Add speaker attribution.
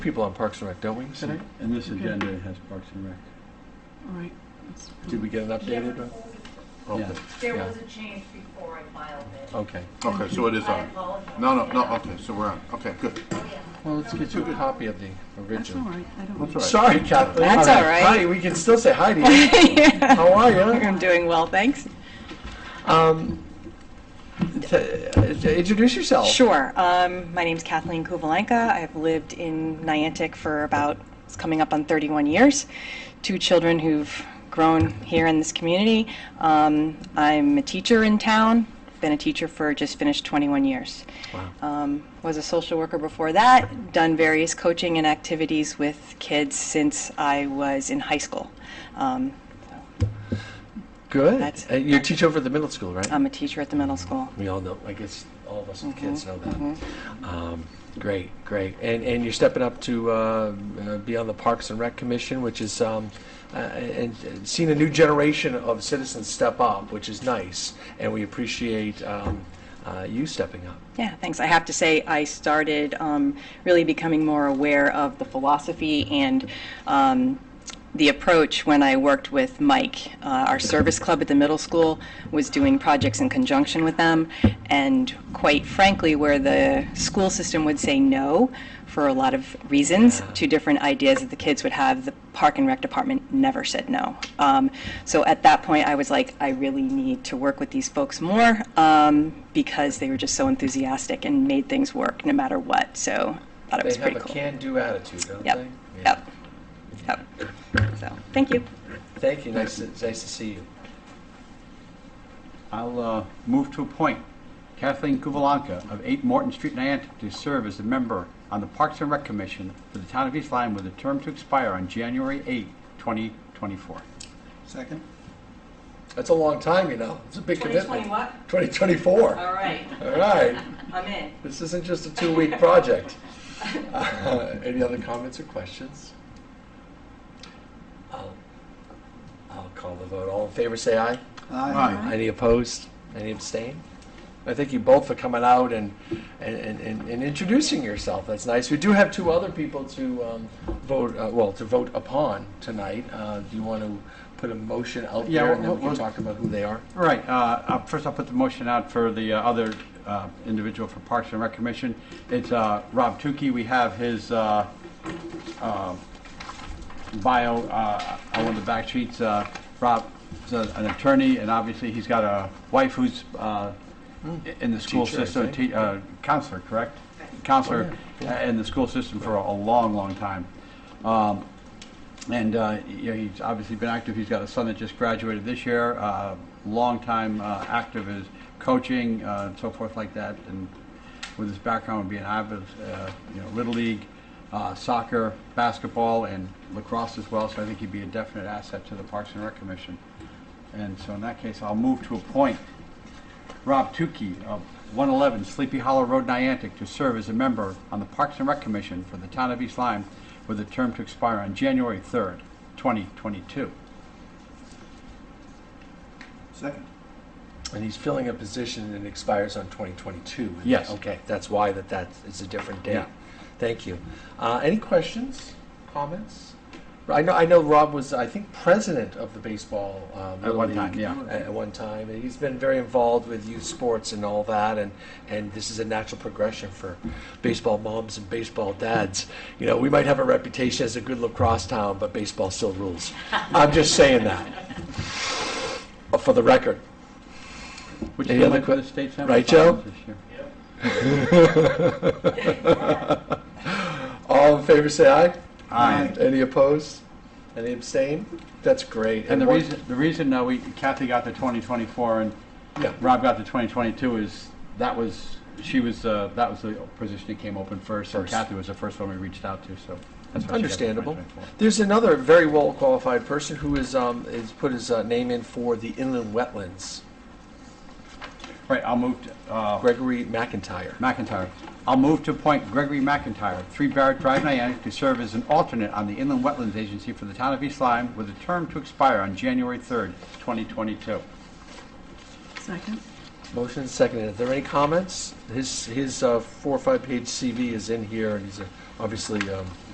Speaker 1: people on Parks and Rec, don't we, today?
Speaker 2: And this
Speaker 3: Okay.
Speaker 2: agenda has Parks and Rec.
Speaker 3: All right. that's
Speaker 1: Did
Speaker 3: fine.
Speaker 1: we get an updated one?
Speaker 2: Yeah.
Speaker 1: Okay.
Speaker 4: There
Speaker 1: Yeah.
Speaker 4: was a change before I filed it.
Speaker 1: Okay.
Speaker 5: Okay, so it is
Speaker 4: I
Speaker 5: on.
Speaker 4: apologize.
Speaker 5: No, no, no, okay, so we're on. Okay, good.
Speaker 1: Well, let's get you a copy of the
Speaker 3: That's all
Speaker 1: original.
Speaker 3: right, I don't.
Speaker 5: That's
Speaker 3: know.
Speaker 5: all right.
Speaker 1: Sorry, Kathleen.
Speaker 6: That's all right.
Speaker 1: Heidi, we can still say Heidi.
Speaker 6: I'm
Speaker 1: How are you?
Speaker 6: doing well, thanks.
Speaker 1: Um, t- uh, introduce yourself.
Speaker 6: Sure. Um, my name's Kathleen Kuvalenka. I've lived in Niantic for about, it's coming up on 31 years. Two children who've grown here in this community. Um, I'm a teacher in town. Been a teacher for just finished 21 years. Um, was a social worker before that. Done various coaching and activities with kids since I was in high school. Um, so
Speaker 1: Good.
Speaker 6: That's- Um,
Speaker 1: Uh, you teach over at the middle school, right?
Speaker 6: I'm a teacher at the middle school.
Speaker 1: we all know. I guess all of us
Speaker 6: Mm-hmm,
Speaker 1: with kids know that. Um, great, great. And and you're stepping up to uh, uh, be on the Parks and Rec Commission, which is um, uh, and, and seeing a new generation of citizens step up, which is nice, and we appreciate um, uh, you stepping up.
Speaker 6: Yeah, thanks. I have to say, I started um, really becoming more aware of the philosophy and um, the approach when I worked with Mike. Uh, our service club at the middle school was doing projects in conjunction with them, and quite frankly, where the school system would say no for a lot of reasons to different ideas that the kids would have, the park and rec department never said no. Um, so at that point, I was like, I really need to work with these folks more um, because they were just so enthusiastic and made things work no matter what. So I thought it
Speaker 1: They
Speaker 6: was
Speaker 1: have
Speaker 6: pretty
Speaker 1: a
Speaker 6: cool.
Speaker 1: can-do attitude, don't
Speaker 6: Yep.
Speaker 1: they? Yeah.
Speaker 6: Yep. Yep. So thank you.
Speaker 1: Thank you. Nice, to, nice to see you.
Speaker 2: I'll uh, move to appoint Kathleen Kuvalanka of 8 Morton Street, Niantic, to serve as a member on the Parks and Rec Commission for the town of East Lyme with a term to expire on January 8, 2024.
Speaker 5: Second?
Speaker 1: That's a long time, you know. It's a big commitment.
Speaker 6: what?
Speaker 1: 2024.
Speaker 6: All right.
Speaker 1: All right.
Speaker 6: I'm in.
Speaker 1: This isn't just a two-week project. Uh, Any other comments or questions? I'll I'll call the vote. All in favor, say aye.
Speaker 5: Aye.
Speaker 1: Any opposed? Any abstain? I thank you both for coming out and, and, and, and introducing yourself. That's nice. We do have two other people to um, vote, uh, well, to vote upon tonight. Uh, Do you want to put a motion out
Speaker 2: Yeah,
Speaker 1: there and then
Speaker 2: we'll-
Speaker 1: we can
Speaker 2: we'll-
Speaker 1: talk about who they are?
Speaker 2: All right, uh, uh, first I'll put the motion out for the uh, other uh, individual for Parks and Rec Commission. It's uh, Rob Tukey. We have his uh, uh, bio uh, on one of the back sheets. Uh, Rob is a- an attorney, and obviously he's got a wife who's uh, in the school
Speaker 1: Teacher, I
Speaker 2: system,
Speaker 1: think.
Speaker 2: te- uh, counselor, correct? Counselor uh, in the school system for a a long, long time. Um, and uh, you know, he's obviously been active. He's got a son that just graduated this year. Uh, long time uh, active as coaching uh, and so forth like that. And with his background being active, uh, you know, Little League, uh, soccer, basketball, and lacrosse as well. So I think he'd be a definite asset to the Parks and Rec Commission. And so in that case, I'll move to appoint Rob Tukey of 111 Sleepy Hollow Road, Niantic, to serve as a member on the Parks and Rec Commission for the town of East Lyme with a term to expire on January 3rd, 2022.
Speaker 5: Second?
Speaker 1: And he's filling a position and expires on 2022.
Speaker 2: Yes.
Speaker 1: Okay, that's why that, that is a different date.
Speaker 2: Yeah.
Speaker 1: Thank you. Uh, Any questions, comments? I know, I know Rob was, I think, president of the baseball. uh, Little
Speaker 2: one time,
Speaker 1: League
Speaker 2: yeah.
Speaker 1: At at one time, and he's been very involved with youth sports and all that, and, and this is a natural progression for baseball moms and baseball dads. You know, we might have a reputation as a good lacrosse town, but baseball still rules. I'm just saying that, Uh, for the record.
Speaker 2: Which
Speaker 1: Any
Speaker 2: came
Speaker 1: other
Speaker 2: up with
Speaker 1: que-
Speaker 2: the state senate
Speaker 1: right, Joe?
Speaker 2: this year.
Speaker 1: All in favor, say aye.
Speaker 2: Aye.
Speaker 1: Any opposed? Any abstain? That's great.
Speaker 2: And the
Speaker 1: one-
Speaker 2: reason, the reason uh, we, Kathy got the 2024 and
Speaker 1: Yeah.
Speaker 2: Rob got the 2022 is, that was, she was, uh, that was the position that came open first. And
Speaker 1: First.
Speaker 2: Kathy was the first one we reached out to, so. that's why she got the
Speaker 1: Understandable.
Speaker 2: 2024.
Speaker 1: There's another very well-qualified person who is, um, has put his uh, name in for the inland wetlands,
Speaker 2: Right, I'll move to, uh,
Speaker 1: Gregory McIntyre.
Speaker 2: McIntyre. I'll move to appoint Gregory McIntyre, 3 Barrett Drive, Niantic, to serve as an alternate on the Inland Wetlands Agency for the town of East Lyme with a term to expire on January 3rd, 2022.
Speaker 3: Second,
Speaker 1: Motion is seconded. Are there any comments? His, his uh, four or five-page CV is in here, and he's a- obviously um,